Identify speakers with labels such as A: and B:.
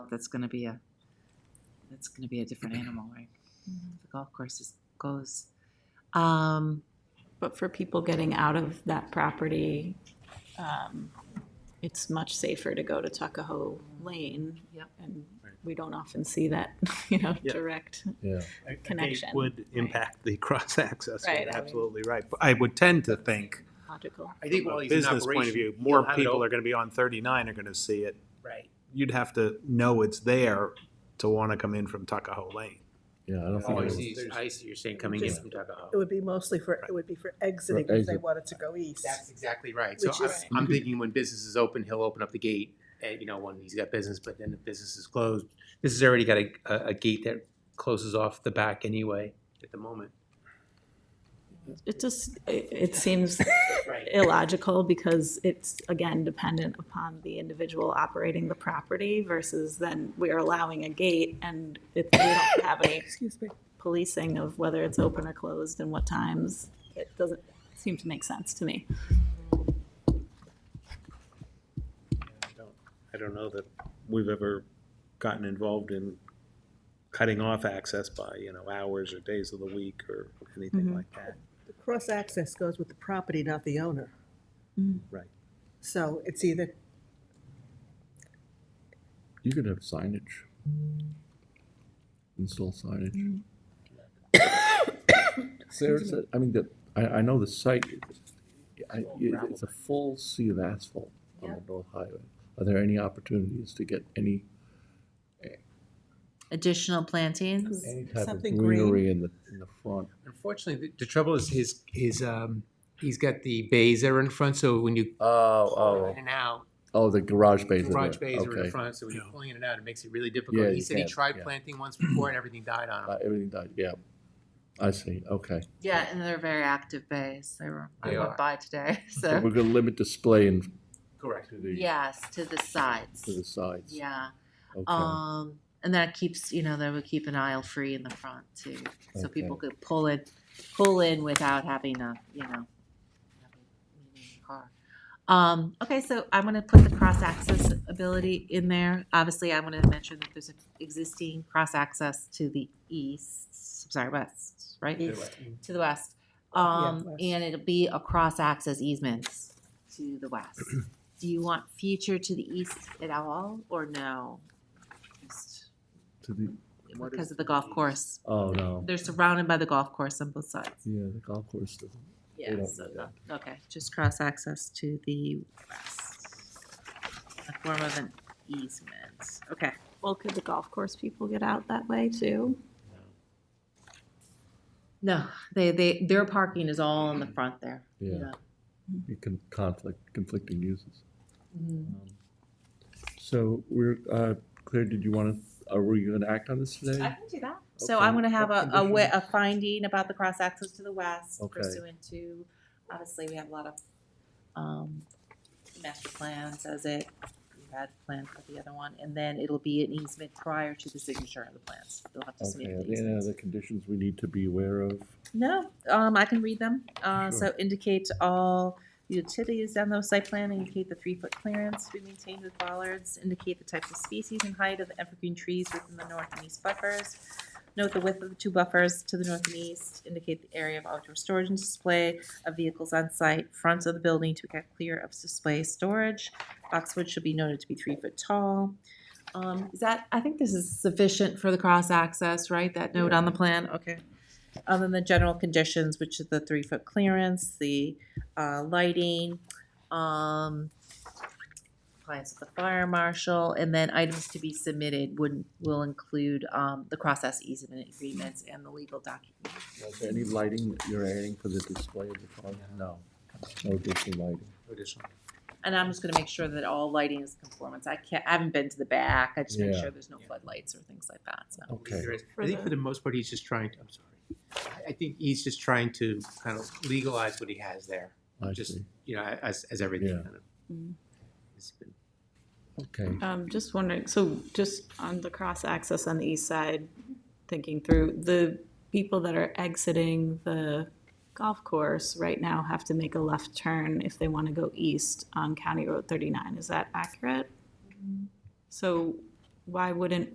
A: that's gonna be a, that's gonna be a different animal, right? The golf course is, goes. Um,
B: But for people getting out of that property, um, it's much safer to go to Tuckahoe Lane.
A: Yep.
B: And
C: Right.
B: we don't often see that, you know,
C: Yeah.
B: direct.
D: Yeah.
C: I- I think
B: Connection,
C: Would impact the cross-access,
B: Right, I
C: You're
B: mean-
C: absolutely right. But I would tend to think,
B: Logical.
E: I think
C: from
E: while
C: a
E: he's in
C: business point of
E: operation,
C: view,
E: he'll
C: more
E: have it
C: people
E: open.
C: are gonna be on thirty-nine are gonna see it.
E: Right.
C: You'd have to know it's there to wanna come in from Tuckahoe Lane.
D: Yeah, I don't think.
E: Oh, I
D: it was-
E: see, I see, you're saying coming in
F: Just-
E: from Tuckahoe.
F: It would be mostly for, it would be for exiting if they
D: exit.
F: wanted to go east.
E: That's exactly right, so
F: Which
E: I'm,
F: is-
E: I'm thinking when business is open, he'll open up the gate, and, you know, when he's got business, but then if business is closed, this has already got a, a, a gate that closes off the back anyway, at the moment.
B: It just, it, it seems
E: Right.
B: illogical because it's, again, dependent upon the individual operating the property versus then we are allowing a gate and it, we don't have any
F: Excuse me.
B: policing of whether it's open or closed and what times. It doesn't seem to make sense to me.
C: I don't- I don't know that we've ever gotten involved in cutting off access by, you know, hours or days of the week or anything
B: Mhm.
C: like that.
F: The cross-access goes with the property, not the owner.
B: Mm.
C: Right.
F: So it's either,
D: You could have signage. Install
A: Mm-hmm.
D: signage. There's, a- I mean, the, I, I know the site, I, it- it's a full sea of asphalt on the North Highway. Are there any opportunities to get any,
A: additional plantings?
D: any type of
F: Something green.
D: greenery in the, in the front?
E: Unfortunately, the, the trouble is his, his, um, he's got the bays that are in front, so when you
D: Oh,
E: pull in and out,
D: Oh, the garage bays are there.
E: garage bays are in
D: Okay.
E: front, so when you're
C: Yeah.
E: pulling in and out, it makes it really
D: Yeah,
E: difficult. He
D: you
E: said he
D: can't,
E: tried
D: yeah.
E: planting once before and everything died on him.
D: Uh, Everything died, yeah. I see, okay.
A: Yeah, and they're very active bays. They were, I
E: They
A: went
E: are.
A: by today,
D: So we're
A: so.
D: gonna limit display and
E: Correct.
D: to the,
A: Yes, to the sides.
D: to the sides.
A: Yeah,
D: Okay,
A: um, and that keeps, you know, that would keep an aisle free in the front too. So people could pull in, pull in without having a, you know, having- leaving the car. Um, okay, so I'm gonna put the cross access ability in there. Obviously, I wanna mention that there's an existing cross access to the east, sorry, west, right? to the west. Um,
F: west.
A: and it'll be a cross-access easements to the west. Do you want future to the east at all, or no? Just
D: to the,
E: What
A: Because
E: is
A: of the
E: to the
A: golf
E: east?
A: course.
D: oh, no,
A: They're surrounded by the golf course on both sides.
D: yeah, the golf course doesn't.
A: Yeah,
D: don't
A: so,
D: need that.
A: the- okay, just cross-access to the west. A form of an easement, okay.
B: Well, could the golf course people get out that way too?
A: No, they, they, their parking is all in the front there.
D: Yeah. It can conflict, conflicting uses.
A: Mhm.
D: So we're, uh, Claire, did you wanna, are we gonna act on this
A: I
D: today?
A: can do that. So I'm
D: Okay.
A: gonna have a, a,
D: Conditional.
A: wi- a finding about the cross access to the west
D: Okay.
A: pursuant to, obviously, we have a lot of, um, master plans as it, we had planned for the other one, and then it'll be an easement prior to the signature of the plans. They'll have to
D: Okay,
A: submit
D: are
A: the
D: there any
A: easements.
D: other conditions we need to be aware of?
A: No, um, I can read them, uh, so indicate all utilities on those site plan, indicate the three-foot clearance to be maintained with bollards, indicate the types of species and height of the evergreen trees within the north and east buffers. Note the width of the two buffers to the north and east, indicate the area of outdoor storage and display of vehicles on site, fronts of the building to get clear of display storage. Boxwood should be noted to be three foot tall. Um, is that, I think this is sufficient for the cross-access, right, that note on the plan, okay. Um, and the general conditions, which is the three-foot clearance, the, uh, lighting, um, compliance with the fire marshal, and then items to be submitted would, will include, um, the process easement agreements and the legal document.
D: Is there any lighting that you're adding for the display of the car? No, no additional lighting.
E: Additional.
A: And I'm just gonna make sure that all lighting is conformance, I can't, I haven't been to the back, I just make
D: Yeah.
A: sure there's no floodlights or things like that, so.
E: I believe
D: Okay.
E: there is.
B: For
E: I think for
B: the-
E: the most part, he's just trying, to- I'm sorry. I- I think he's just trying to kind of legalize what he has there,
D: I
E: just,
D: see.
E: you know, as, as everything
D: Yeah.
E: kind of.
B: Mm.
E: has been-
D: Okay,
B: Um, just wondering, so just on the cross access on the east side, thinking through, the people that are exiting the golf course right now have to make a left turn if they want to go east on County Road thirty-nine, is that accurate? So why wouldn't